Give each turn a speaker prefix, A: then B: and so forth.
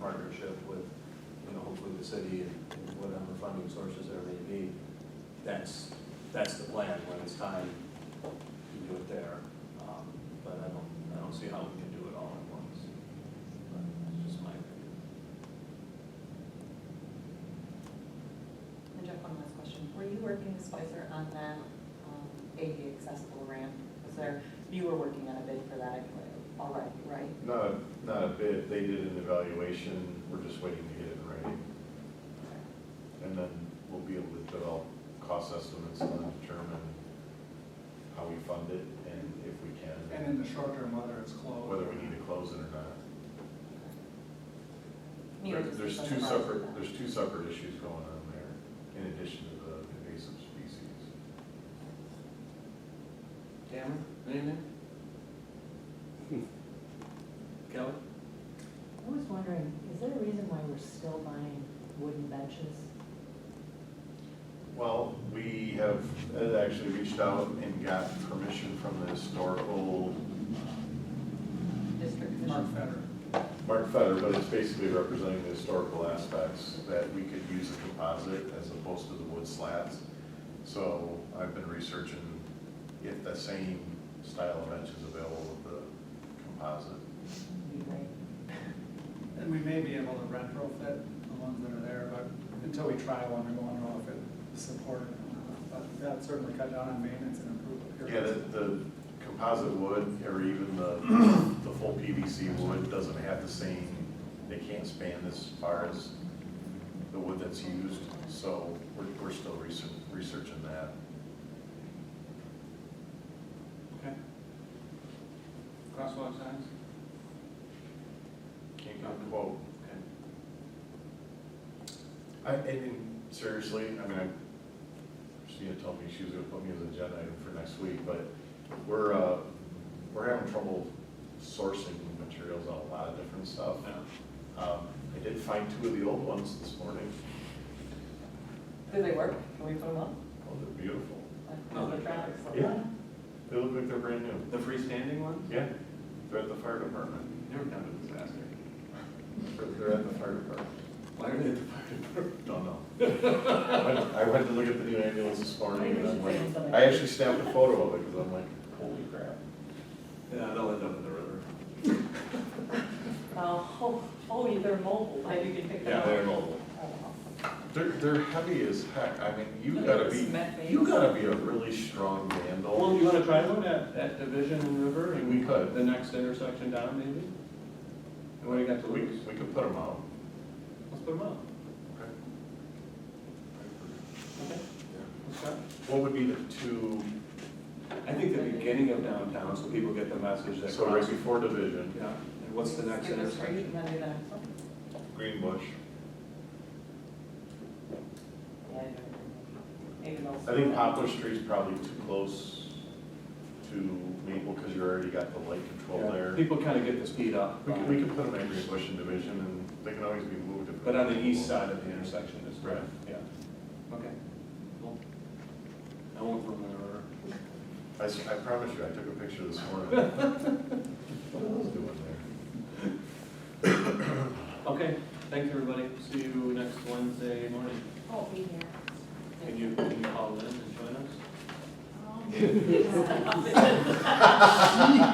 A: partnership with, you know, hopefully the city and and whatever funding sources there may be. That's, that's the plan, when it's time, you do it there. Um, But I don't, I don't see how we can do it all at once. But that's just my opinion.
B: And Jeff, one last question. Were you working with Spicer on that um, ADA accessible ramp? Was there, you were working on a bid for that anyway, already, right?
C: Not, a- not a bid, they did an evaluation, we're just waiting to get it ready, and then we'll be able to develop cost estimates and then determine how we fund it, and if we
D: And
C: can,
D: in the short term, whether it's closed.
C: whether we need to close it or not.
B: Neither
C: There-
B: does
C: There's
B: this
C: two
B: one, right?
C: separate, there's two separate issues going on there, in addition to the invasive species.
A: Tamara, anything? Kelly?
E: I was wondering, is there a reason why we're still buying wooden benches?
C: Well, we have uh, actually reached out and got permission from the historical
B: District
D: Mark
B: commission.
D: Feder.
C: Mark Fetter, but it's basically representing the historical aspects that we could use a composite as opposed to the wood slats. So I've been researching if the same style of bench is available with the composite.
E: Would be great.
D: And we may be able to retrofit the ones that are there, but until we try one, we won't know if it is supported or not. But that certainly cut down on maintenance and improve
C: Yeah,
D: appearance.
C: the, the composite wood or even the, the full PVC wood doesn't have the same, they can't span as far as the wood that's used. So we're, we're still research, researching that.
D: Okay. Crosswalk signs?
C: Can't get a quote.
A: Okay.
C: I, I mean, seriously, I mean, I- Christina told me she was gonna put me as an agenda item for next week, but we're, uh, we're having trouble sourcing materials on a lot of different
A: Uh,
C: stuff. Um, I did find two of the old ones this morning.
B: Do they work? Can we put them up?
C: Oh, they're beautiful.
B: Like,
A: No,
B: the
A: they're-
B: traffic's like-
C: Yeah. They look like they're brand new.
A: The freestanding ones?
C: Yeah, they're at the fire department.
A: They were kind of a disaster.
C: They're- They're at the fire department.
A: Why are they at the fire department?
C: Don't know. I went- I went to look at the new ambulance this morning and I'm
E: Maybe we should say
C: like,
E: something.
C: I actually snapped a photo of it because I'm like, holy crap.
A: Yeah, they'll end up in the river.
B: Oh, oh, they're mobile, like you can pick them
C: Yeah,
B: up.
C: they're mobile.
B: Oh,
C: They're, they're heavy as heck. I mean, you
B: Look at
C: gotta
B: this
C: be,
B: cement base.
C: you gotta be a really strong
A: Well,
C: vandal.
A: you wanna try one at, at Division and River? and
C: We could.
A: The next intersection down, maybe? And what do you got to
C: We,
A: lose?
C: we could put them out.
A: Let's put them up. Okay. Let's try.
C: What would be the two,
A: I think the beginning of downtown, so people get the message that.
C: so right before division,
A: Yeah, and what's the next
B: Skip a street
A: intersection?
B: And then do the next one?
C: Green Bush.
B: Yeah, I do. Maybe they'll.
C: I think Poplar Street's probably too close to Maple because you already got the light control
A: Yeah,
C: there.
A: People kind of get the speed up.
C: We could, we could put them at Green Bush and division and they can always be moved. if-
A: But on the east side of the intersection is
C: Right.
A: right, yeah. Okay. Cool. I won't run the river.
C: I, s- I promise you, I took a picture this morning. What was doing there?
A: Okay, thanks, everybody. See you next Wednesday morning.
B: Oh, be here.
A: Can you, can you call in and join us?
B: Oh.